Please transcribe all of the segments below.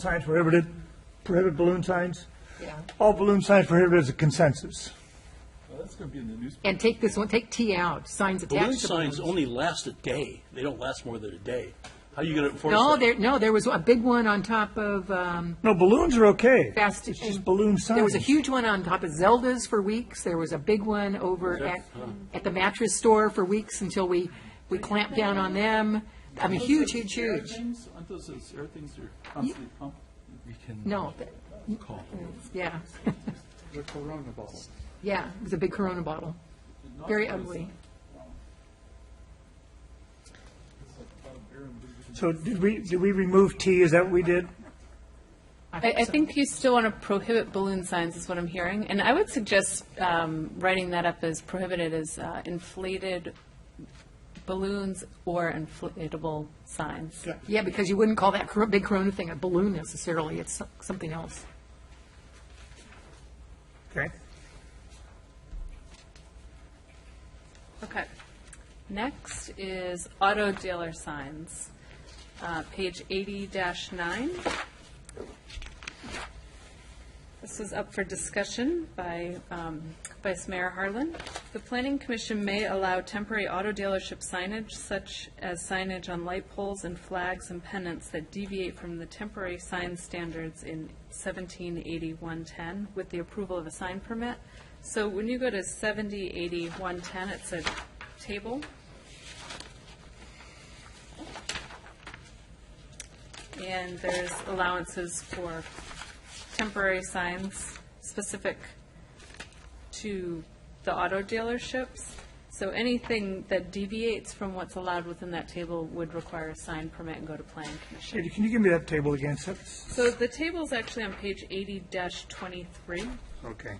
signs prohibited, prohibit balloon signs. Yeah. All balloon signs prohibited is a consensus. Well, that's going to be in the newspaper. And take this one, take T out, signs Balloon attached to signs balloons. only last a day. They don't last more than a day. How are you going to enforce that? No, there, no, there was a big one on top of, um, No, balloons are okay. Fast- It's just balloon signs. there was a huge one on top of Zelda's for weeks. There was a big one over at, uh-huh. at the mattress store for weeks until we, we clamped down on them. I mean, huge, huge, huge. Things, aren't those those air things that are constantly pumped? We can. No, th- Call. yeah, The Corona bottle. yeah, it was a big Corona bottle. Very ugly. So did we, did we remove T? Is that what we did? I, I think you still want to prohibit balloon signs, is what I'm hearing. And I would suggest um, writing that up as prohibited as uh, inflated balloons or inflatable signs. Yeah, because you wouldn't call that cor- big Corona thing a balloon necessarily. It's so- something else. Okay. Okay. Next is auto dealer signs, uh, page 80-9. This was up for discussion by um, Vice Mayor Harlan. The Planning Commission may allow temporary auto dealership signage such as signage on light poles and flags and pennants that deviate from the temporary sign standards in 1780-110 with the approval of a sign permit. So when you go to 7080-110, it's a table. And there's allowances for temporary signs specific to the auto dealerships. So anything that deviates from what's allowed within that table would require a sign permit and go to planning commission. Katie, can you give me that table again? So- So the table's actually on page eighty twenty-three, so Okay.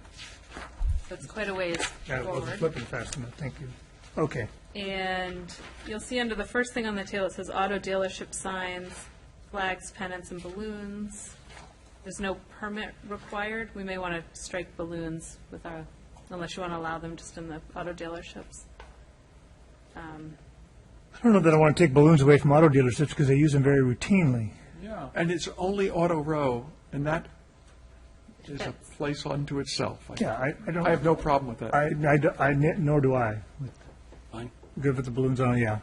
it's quite a ways Yeah, I wasn't forward. flipping fast enough. Thank you. Okay. And you'll see under the first thing on the table, it says auto dealership signs, flags, pennants, and balloons. There's no permit required. We may want to strike balloons with our, unless you want to allow them just in the auto dealerships. I don't know that I want to take balloons away from auto dealerships because they use them very routinely. Yeah. And it's only Auto Row, and that is a That's- place unto itself. Yeah, I, I don't. I have no problem with that. I, I d- I ne- nor do I. Fine. Good with the balloons on, yeah.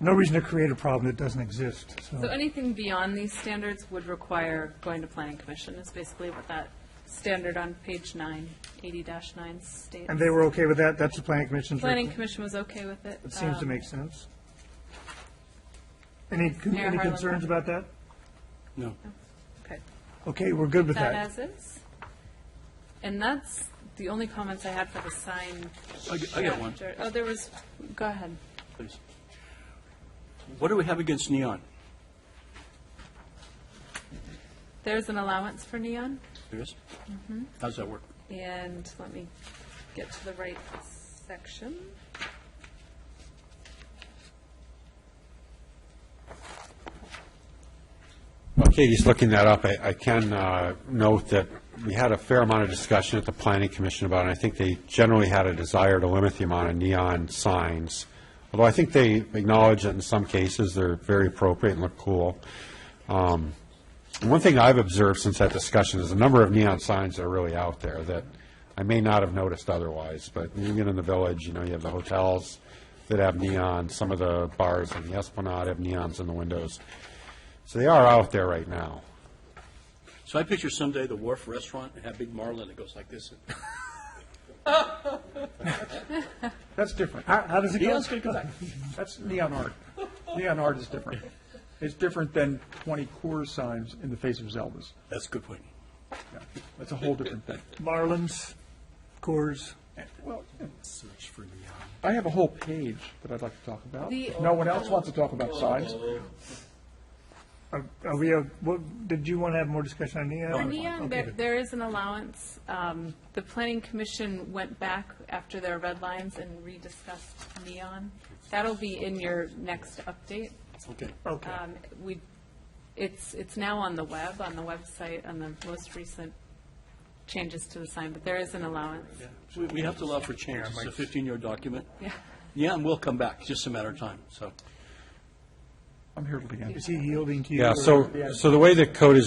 No reason to create a problem that doesn't exist, so. So anything beyond these standards would require going to planning commission, is basically what that standard on page nine, eighty dash nine states. And they were okay with that? That's the planning commission's. Planning recommend- commission was okay with it. It seems to Um, make sense. Any, con- Mayor any Harlan. concerns about that? No. Okay. Okay, we're good with that that. as is. And that's the only comments I had for the sign. I g- I got one. chapter. Oh, there was, go ahead. Please. What do we have against neon? There's an allowance for neon, There is? How's that work? and let me get to the right section. While Katie's looking that up, I I can uh, note that we had a fair amount of discussion at the Planning Commission about it, and I think they generally had a desire to limit the amount of neon signs, although I think they acknowledge that in some cases, they're very appropriate and look cool. Um, One thing I've observed since that discussion is the number of neon signs that are really out there that I may not have noticed otherwise, but when you get in the village, you know, you have the hotels that have neon, some of the bars on the Esplanade have neons in the windows. So they are out there right now. So I picture someday the Wharf Restaurant and have Big Marlin that goes like this. That's different. How, how does it go? Neon's going to come back. That's neon art. Neon art is different. It's different than 20 core signs in the face of Zeldas. That's a good point. Yeah, That's a whole different thing. Marlins, Coors. Well, Search for neon. I have a whole page that I'd like to talk about. The- No one else wants to talk about signs. Are are we, uh, what, did you want to have more discussion on For neon? neon, there, there is an allowance. Um, The planning commission went back after their red lines and rediscussed neon. That'll be in your next update. Okay. Okay. Um, We, it's, it's now on the web, on the website, on the most recent changes to the sign, but there is an allowance. So we- we have to allow for change. It's a 15-year document. Yeah. Neon will come back, it's just a matter of time, so. I'm here to the end. Is he yielding to you? Yeah, or- so, so the way the code is